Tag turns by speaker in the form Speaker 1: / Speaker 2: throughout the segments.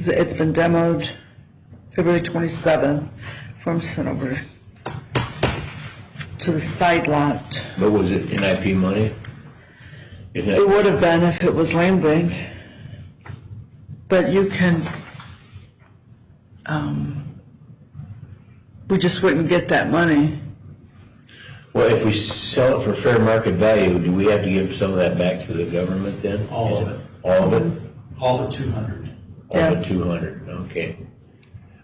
Speaker 1: It's been demoed February twenty-seventh from Centover to the side lot.
Speaker 2: But was it NIP money?
Speaker 1: It
Speaker 2: Is that,
Speaker 1: would have been if it was land bank, but you can, um, we just wouldn't get that money.
Speaker 2: well, if we sell it for fair market value, do we have to give some of that back to the government then?
Speaker 3: All of it.
Speaker 2: All of it?
Speaker 3: all but two hundred.
Speaker 2: All
Speaker 1: Yeah.
Speaker 2: but two hundred, okay.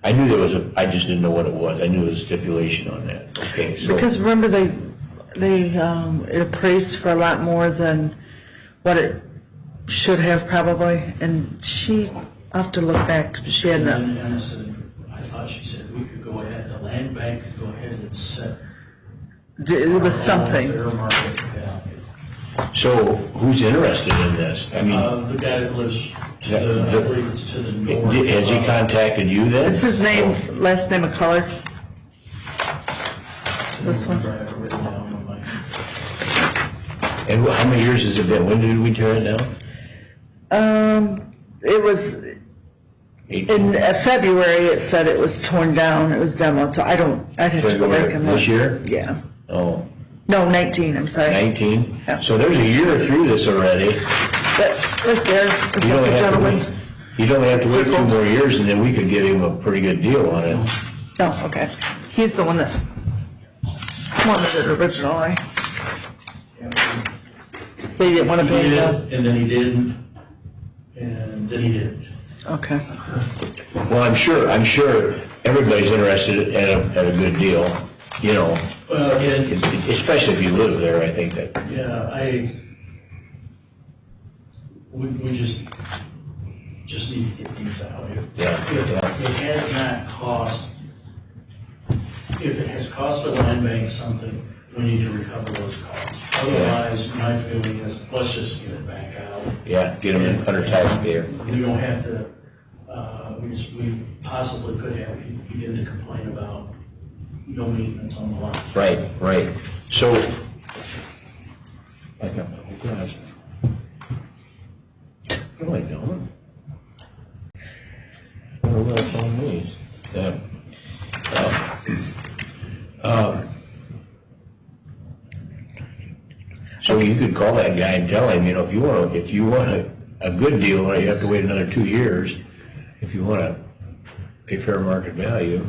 Speaker 2: I knew there was a, I just didn't know what it was. I knew there was a stipulation on that. Okay, so.
Speaker 1: Because remember, they, they, um, it appraised for a lot more than what it should have probably, and she, I'll have to look back, she had,
Speaker 3: And
Speaker 1: no-
Speaker 3: then Anna said, I thought she said we could go ahead, the land bank could go ahead and set.
Speaker 1: it was something.
Speaker 3: Their market value.
Speaker 2: So who's interested in this? I mean,
Speaker 3: Uh, the guy that lives to
Speaker 2: Yeah,
Speaker 3: the, I
Speaker 2: the-
Speaker 3: believe it's to the north.
Speaker 2: has he contacted you then?
Speaker 1: It's his name, last name of color, this one?
Speaker 3: I have it written down on my-
Speaker 2: And wh- how many years has it been? When did we tear it down?
Speaker 1: um, it was, in
Speaker 2: Eighteen?
Speaker 1: uh, February, it said it was torn down, it was demoed, so I don't, I'd have to go back and look.
Speaker 2: February this year?
Speaker 1: Yeah,
Speaker 2: Oh,
Speaker 1: no, nineteen, I'm sorry,
Speaker 2: nineteen?
Speaker 1: Yeah.
Speaker 2: So there's a year through this already.
Speaker 1: but, right there, is
Speaker 2: You
Speaker 1: that
Speaker 2: don't
Speaker 1: the
Speaker 2: have to wait,
Speaker 1: gentleman?
Speaker 2: you don't have to wait two more years, and then we could get him a pretty good deal on it.
Speaker 1: No, okay, he's the one that wanted it originally. They didn't wanna
Speaker 3: He
Speaker 1: pay the,
Speaker 3: did, and then he didn't, and then he didn't.
Speaker 1: okay,
Speaker 2: Well, I'm sure, I'm sure everybody's interested at a, at a good deal, you know,
Speaker 3: Well, again,
Speaker 2: especially if you live there, I think that,
Speaker 3: yeah, I, we, we just, just need to get these out here.
Speaker 2: yeah.
Speaker 3: If
Speaker 2: yeah.
Speaker 3: it has not cost, if it has cost the land bank something, we need to recover those costs. Otherwise, my feeling is, let's just get it back out.
Speaker 2: Yeah, get him under tax there.
Speaker 3: We don't have to, uh, we just, we possibly could have, people begin to complain about no maintenance on the lot.
Speaker 2: Right, right. So. I got my whole glass. No, I don't. I don't know what's on me. Um, Uh, uh, um, So you could call that guy and tell him, you know, if you want, if you want a, a good deal, or you have to wait another two years, if you wanna pay fair market value.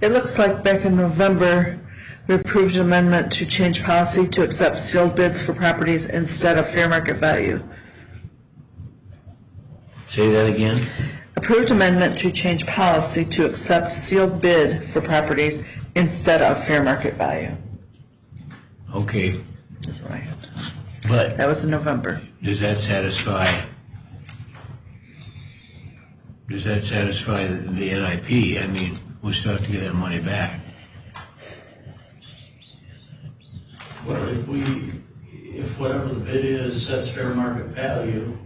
Speaker 1: it looks like back in November, we approved an amendment to change policy to accept sealed bids for properties instead of fair market value.
Speaker 2: Say that again?
Speaker 1: Approved amendment to change policy to accept sealed bid for properties instead of fair market value,
Speaker 2: Okay,
Speaker 1: is what I had.
Speaker 2: but
Speaker 1: That was in November.
Speaker 2: Does that satisfy, does that satisfy the NIP? I mean, we still have to get that money back.
Speaker 3: Well, if we, if whatever the bid is, sets fair market value,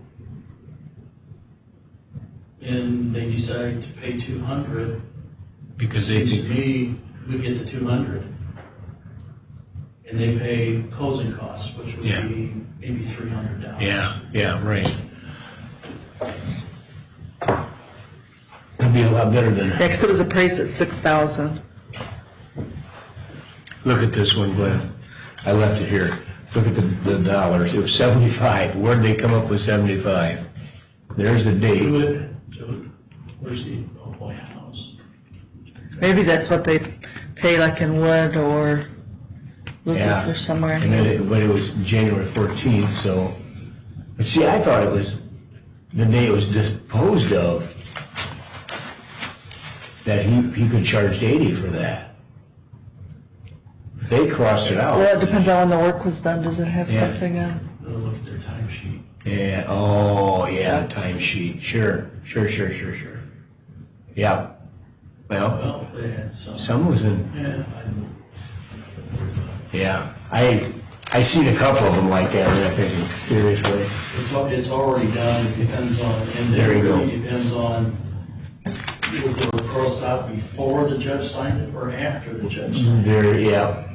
Speaker 3: and they decide to pay two hundred,
Speaker 2: Because they
Speaker 3: seems to
Speaker 2: think,
Speaker 3: me, we get the two hundred. And they pay closing costs, which would
Speaker 2: Yeah.
Speaker 3: be maybe three hundred dollars.
Speaker 2: yeah, yeah, right. That'd be a lot better than,
Speaker 1: Next, it was appraised at six thousand.
Speaker 2: look at this one, Glenn. I left it here. Look at the, the dollars. It was seventy-five. Where'd they come up with seventy-five? There's the
Speaker 3: Do
Speaker 2: date.
Speaker 3: it, do it, where's the, oh boy, house?
Speaker 1: Maybe that's what they pay like in Wood or Lucas
Speaker 2: Yeah.
Speaker 1: or somewhere.
Speaker 2: And then it, but it was January fourteenth, so, but see, I thought it was the day it was disposed of, that he, he could charge eighty for that. They crossed it
Speaker 1: Well,
Speaker 2: out.
Speaker 1: it depends on when the work was done, does it have
Speaker 2: Yeah.
Speaker 1: something uh, on?
Speaker 3: Go look at their timesheet.
Speaker 2: Yeah, oh, yeah, the timesheet, sure, sure, sure, sure, sure. Yeah, well,
Speaker 3: Well, they had some.
Speaker 2: some was in
Speaker 3: Yeah, I don't.
Speaker 2: Yeah, I, I seen a couple of them like that, and I'm thinking, seriously?
Speaker 3: It's, al- it's already done, it depends on, and
Speaker 2: There
Speaker 3: it
Speaker 2: you go.
Speaker 3: really depends on, was the referral out before the judge signed it or after the judge? signed
Speaker 2: There, yeah,